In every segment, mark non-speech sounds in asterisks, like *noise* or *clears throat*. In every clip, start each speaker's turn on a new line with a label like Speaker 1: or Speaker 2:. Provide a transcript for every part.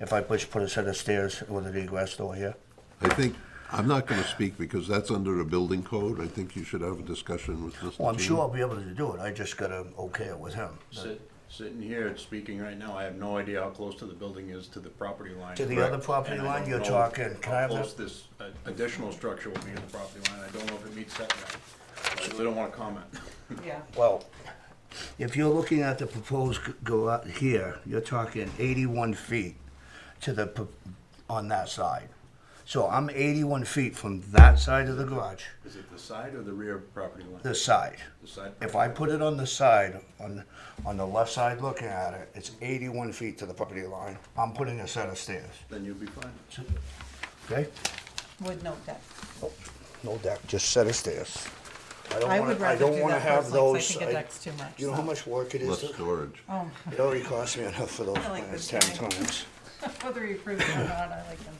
Speaker 1: if I push, put a set of stairs with an egress door here.
Speaker 2: I think, I'm not going to speak because that's under a building code. I think you should have a discussion with Mr.
Speaker 1: Well, Oh, I'm
Speaker 2: Team.
Speaker 1: sure I'll be able to do it, I just gotta okay it with him.
Speaker 3: Sit- Sitting here and speaking right now, I have no idea how close to the building is to the property line.
Speaker 1: To the
Speaker 3: Correct.
Speaker 1: other property
Speaker 3: And I
Speaker 1: line
Speaker 3: don't
Speaker 1: you're
Speaker 3: know
Speaker 1: talking, can I have
Speaker 3: How
Speaker 1: that?
Speaker 3: close this uh, additional structure will be to the property line, I don't know if it meets setback. I really don't wanna comment.
Speaker 4: Yeah,
Speaker 1: Well, if you're looking at the proposed g- go out here, you're talking 81 feet to the, pro- on that side. So I'm 81 feet from that side of the garage,
Speaker 3: Is it the side or the rear property line?
Speaker 1: this side.
Speaker 3: The side.
Speaker 1: If I put it on the side, on, on the left side looking at it, it's 81 feet to the property line. I'm putting a set of stairs,
Speaker 3: Then you'll be fine.
Speaker 1: okay?
Speaker 4: with no *laughs* deck.
Speaker 1: No deck, just set of stairs. I
Speaker 4: I
Speaker 1: don't
Speaker 4: would
Speaker 1: wanna, I
Speaker 4: rather
Speaker 1: don't
Speaker 4: do
Speaker 1: wanna
Speaker 4: that
Speaker 1: have
Speaker 4: personally, 'cause I
Speaker 1: those.
Speaker 4: think a deck's too much,
Speaker 1: You know how
Speaker 4: so.
Speaker 1: much work it
Speaker 2: Less
Speaker 1: is? to-
Speaker 2: storage.
Speaker 4: Oh,
Speaker 1: It already cost me enough for those
Speaker 4: I like
Speaker 1: plans ten
Speaker 4: this guy.
Speaker 1: times.
Speaker 4: whether you approve it or not, I like them.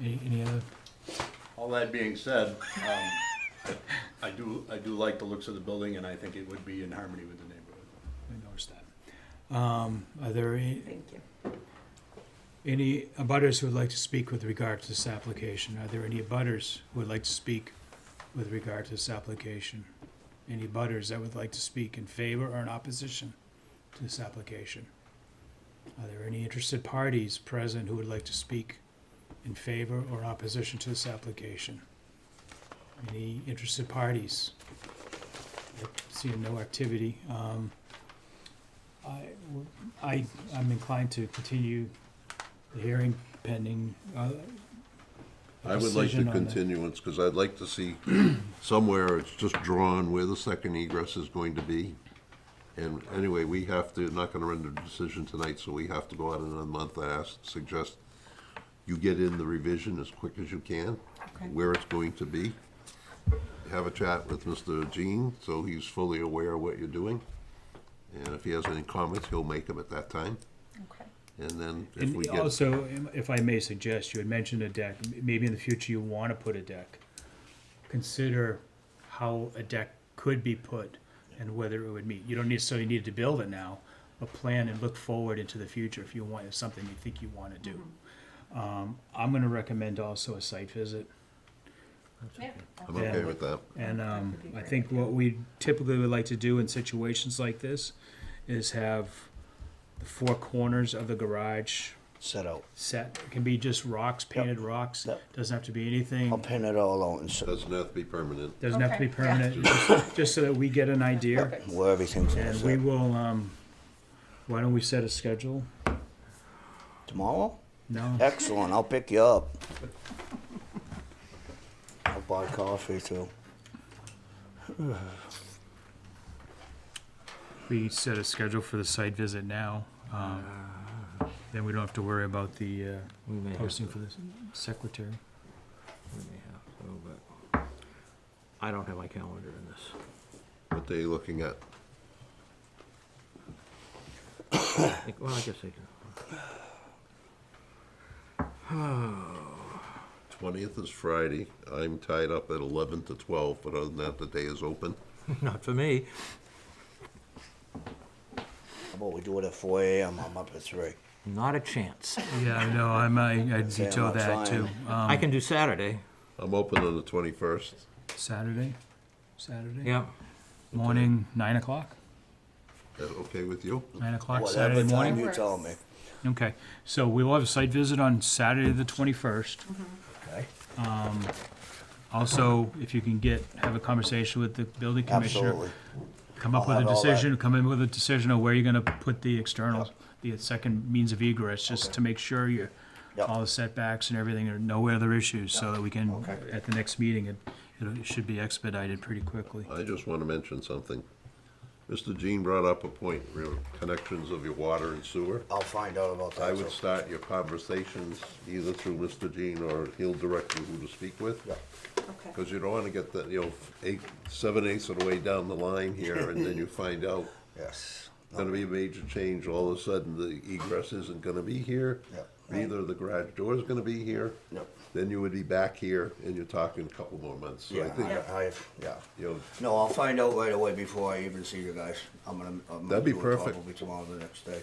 Speaker 5: Any, any other?
Speaker 3: All that being
Speaker 1: *laughs*
Speaker 3: said, um, I- I do, I do like the looks of the building and I think it would be in harmony with the neighborhood.
Speaker 5: I noticed that. Um, are there any,
Speaker 4: Thank you.
Speaker 5: any abutters who would like to speak with regard to this application? Are there any abutters who would like to speak with regard to this application? Any abutters that would like to speak in favor or in opposition to this application? Are there any interested parties present who would like to speak in favor or opposition to this application? Any interested parties? Yep, Seeing no activity, um, I, I, I'm inclined to continue the hearing pending, uh,
Speaker 2: I would like to
Speaker 5: decision on that.
Speaker 2: continuance because I'd like to
Speaker 5: *clears throat*
Speaker 2: see somewhere it's just drawn where the second egress is going to be. And anyway, we have to, not going to render a decision tonight, so we have to go out in another month. I ask, suggest you get in the revision as quick as you can,
Speaker 4: Okay.
Speaker 2: where it's going to be. Have a chat with Mr. Jean, so he's fully aware of what you're doing. And if he has any comments, he'll make them at that time.
Speaker 4: Okay.
Speaker 2: And then if we
Speaker 5: And
Speaker 2: get,
Speaker 5: also, um, if I may suggest, you had mentioned a deck, M- maybe in the future you wanna put a deck. Consider how a deck could be put and whether it would meet. You don't necessarily need to build it now, but plan and look forward into the future if you want, if something you think you wanna do.
Speaker 4: Mm-hmm.
Speaker 5: Um, I'm gonna recommend also a site visit.
Speaker 4: Yeah.
Speaker 2: I'm okay with that.
Speaker 5: And um,
Speaker 4: would Oh, be
Speaker 5: I
Speaker 4: great.
Speaker 5: think what we typically would like to do in situations like this is have the four corners of the garage
Speaker 1: Set out.
Speaker 5: set. It can be just rocks, painted rocks.
Speaker 1: Yep.
Speaker 5: Doesn't have to be anything.
Speaker 1: I'll pin it all out and s-
Speaker 2: Doesn't have to be permanent.
Speaker 5: Doesn't have to be
Speaker 4: Okay,
Speaker 5: permanent. Just, just so that we get an idea.
Speaker 4: Perfect.
Speaker 1: where everything's gonna
Speaker 5: And we
Speaker 1: sit.
Speaker 5: will. Um, why don't we set a schedule?
Speaker 1: Tomorrow?
Speaker 5: No.
Speaker 1: Excellent, I'll pick you up. I'll buy coffee too.
Speaker 5: We set a schedule for the site visit now. Um, then we don't have to worry about the uh,
Speaker 6: Ah. We may have
Speaker 5: posting
Speaker 6: to-
Speaker 5: for the secretary.
Speaker 6: We may have to, but I don't have my calendar in this.
Speaker 2: What they looking at?
Speaker 6: I think- Well, I guess I can.
Speaker 2: Twentieth is Friday. I'm tied up at eleven to twelve, but other than that, the day is open.
Speaker 6: *laughs* Not for me.
Speaker 1: How about we do it at four AM, I'm up at three.
Speaker 6: Not a chance.
Speaker 5: Yeah, I know. I might. I'd
Speaker 1: Say I'm
Speaker 5: veto
Speaker 1: not
Speaker 5: that too.
Speaker 1: trying.
Speaker 5: Um,
Speaker 6: I can do Saturday.
Speaker 2: I'm open on the twenty-first.
Speaker 5: Saturday. Saturday.
Speaker 6: Yeah.
Speaker 5: Morning, nine o'clock.
Speaker 2: That okay with you?
Speaker 5: Nine o'clock Saturday
Speaker 1: Whatever time
Speaker 5: morning.
Speaker 1: you tell me,
Speaker 5: Okay, so we will have a site visit on Saturday the twenty-first.
Speaker 1: okay?
Speaker 5: Also, if you can get, have a conversation with the building commissioner.
Speaker 1: Absolutely.
Speaker 5: Come up
Speaker 1: I'll
Speaker 5: with a
Speaker 1: have all that.
Speaker 5: decision, come in with a decision on where you're gonna put the external, the second means of egress, just to make sure you,
Speaker 1: Yep.
Speaker 5: all the setbacks and everything, there are no other issues, so that we can,
Speaker 1: Okay.
Speaker 5: at the next meeting, it, it'll- it should be expedited pretty quickly.
Speaker 2: I just want to mention something. Mr. Jean brought up a point, real connections of your water and sewer.
Speaker 1: I'll find out about
Speaker 2: I
Speaker 1: that
Speaker 2: would
Speaker 1: too.
Speaker 2: start your conversations either through Mr. Jean or he'll direct you who to speak with.
Speaker 1: Yeah.
Speaker 4: Okay.
Speaker 2: Because you don't want to get that, you know, eight, seven eighths of the way down the line here and then you find out
Speaker 1: Yes,
Speaker 2: gonna be a major change, all of a sudden the egress isn't gonna be here.
Speaker 1: Yep.
Speaker 2: Neither the garage door is gonna be here.
Speaker 1: Yep.
Speaker 2: Then you would be back here and you're talking a couple more months. So I
Speaker 1: yeah,
Speaker 2: think,
Speaker 1: I, I, yeah.
Speaker 2: you know,
Speaker 1: No, I'll find out right away before I even see you guys. I'm gonna, I'm gonna
Speaker 2: That'd be
Speaker 1: do it
Speaker 2: perfect.
Speaker 1: probably tomorrow or the next day.